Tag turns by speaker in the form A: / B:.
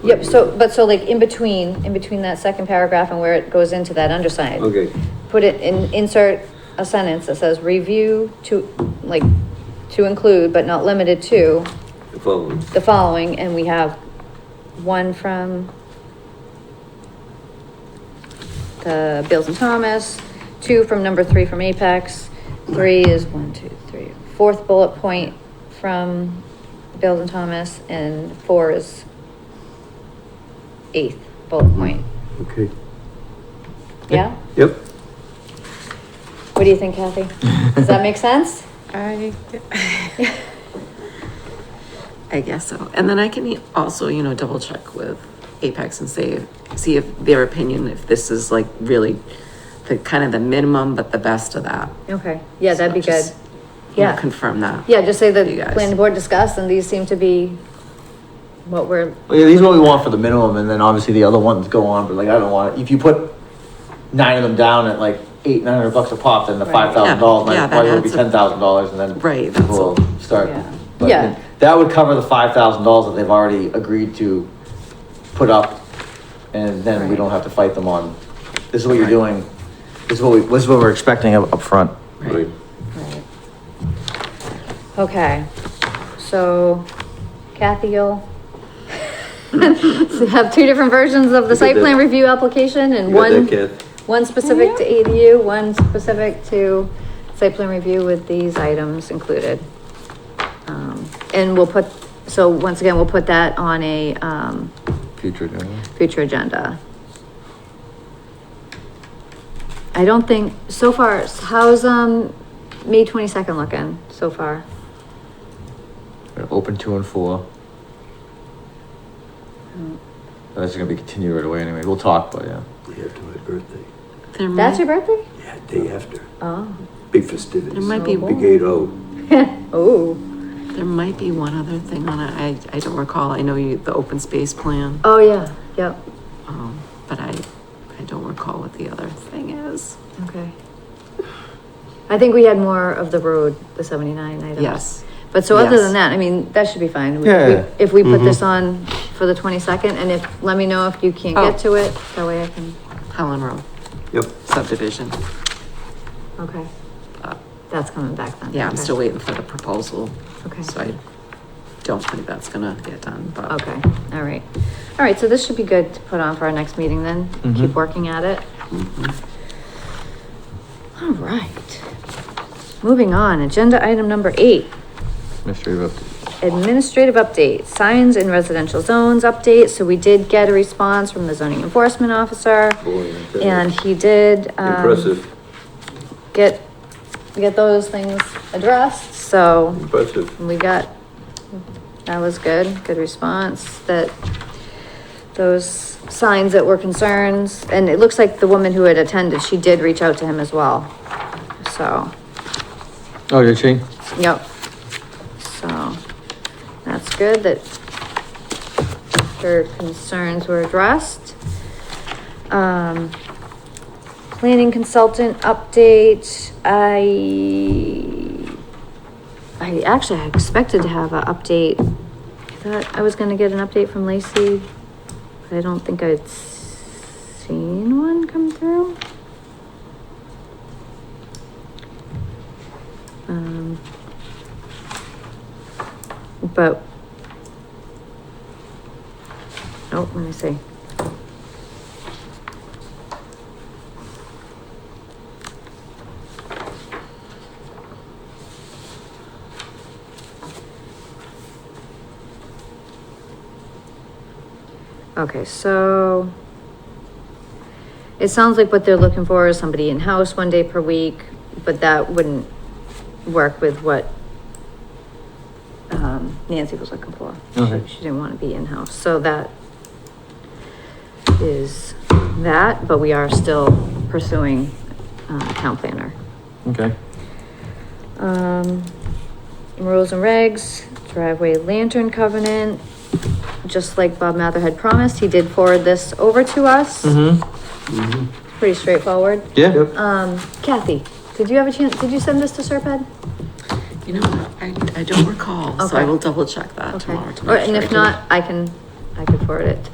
A: Yep, so, but so like in between, in between that second paragraph and where it goes into that underside.
B: Okay.
A: Put it in, insert a sentence that says review to, like, to include but not limited to
B: The following.
A: the following, and we have one from the Bills and Thomas, two from number three from Apex, three is one, two, three, fourth bullet point from Bills and Thomas, and four is eighth bullet point.
C: Mm-hmm.
B: Okay.
A: Yeah?
B: Yep.
A: What do you think, Kathy? Does that make sense?
C: I, I guess so. And then I can e-, also, you know, double check with Apex and say, see if their opinion, if this is like really the kind of the minimum, but the best of that.
A: Okay, yeah, that'd be good.
C: So just, you know,
A: Yeah.
C: Confirm that.
A: Yeah, just say that
C: You guys.
A: planning board discussed, and these seem to be what we're
D: Well, yeah, these are what we want for the minimum, and then obviously the other ones go on. But like, I don't want if you put nine of them down at like eight, nine hundred bucks a pop, then the
A: Right.
D: five thousand dollars
C: Yeah, yeah,
D: might
C: that
D: probably would be
C: adds up.
D: ten thousand dollars, and then
C: Right, that's
D: people will start.
A: Yeah.
D: But
A: Yeah.
D: then that would cover the five thousand dollars that they've already agreed to put up, and then we
C: Right.
D: don't have to fight them on. This is what you're
C: Right.
D: doing. This is what we. This is what we're expecting up, up front.
B: Right.
A: Right. Okay, so Kathy, you'll so have two different versions of
B: You
A: the site
B: got
A: plan
B: that.
A: review application and
B: You got that,
A: one,
B: Kath?
A: one specific to ADU, one specific to site plan review with these items included. Um, And we'll put, so once again, we'll put that on a, um,
D: Future.
A: future agenda. I don't think, so far, how's, um, May twenty-second looking so far?
D: Open two and four. Mm. That's gonna be continued right away anyway. We'll talk, but yeah.
E: Day after my birthday.
C: There
A: That's
C: might-
A: your birthday?
E: Yeah, day after.
A: Oh,
E: Big festivities.
C: There might be-
E: Big eight oh.
A: oh,
C: There might be one other thing on it. I, I don't recall. I know you, the open space plan,
A: oh, yeah, yep,
C: um, but I, I don't recall what the other thing is.
A: okay. I think we had more of the road, the seventy-nine items.
C: Yes.
A: But so other
C: Yes.
A: than that, I mean, that should be fine. We-
D: Yeah, Mm-hmm.
A: we-
D: yeah.
A: If we put this on for the twenty-second, and if, let me know if you can't
C: Oh.
A: get to it, that way I can,
C: Helen Row
B: Yep.
C: subdivision.
A: okay,
C: Uh,
A: that's coming back then.
C: Yeah, I'm
A: okay.
C: still waiting for the proposal.
A: Okay.
C: So I don't think that's gonna get done, but.
A: Okay, all right. All right, so this should be good to put on for our next meeting then. Keep
D: Mhm.
A: working at it. All right. Moving on, agenda item number eight,
D: Mystery of update.
A: administrative update, signs in residential zones update. So we did get a response from the zoning enforcement officer.
B: Boy, okay.
A: And he did, um,
B: Impressive.
A: Get, get those things addressed, so.
B: Impressive.
A: And we got, that was good, good response, that those signs that were concerns, and it looks like the woman who had attended, she did reach out to him as well. So,
D: Oh, did she?
A: yep. So, that's good that her concerns were addressed. Um, planning consultant update, I I actually I expected to have an update. I thought I was gonna get an update from Lacey, but I don't think I'd seen one come through. Um, but oh, let me see. Okay, so it sounds like what they're looking for is somebody in-house one day per week, but that wouldn't work with what um, Nancy was looking for. She-
D: Okay.
A: She didn't want to be in-house, so that is that, but we are still pursuing uh, town planner.
D: Okay.
A: Um, rules and regs, driveway lantern covenant. Just like Bob Mather had promised, he did forward this over to us.
D: Mm-hmm.
A: Pretty straightforward.
D: Yeah.
A: Um, Kathy, did you have a chance, did you send this to Serped?
C: Uh, You know, I, I don't recall, so I
A: Okay.
C: will double check that
A: Okay.
C: tomorrow. to
A: Or,
C: make
A: and
C: sure I
A: if
C: did.
A: not, I can, I can forward it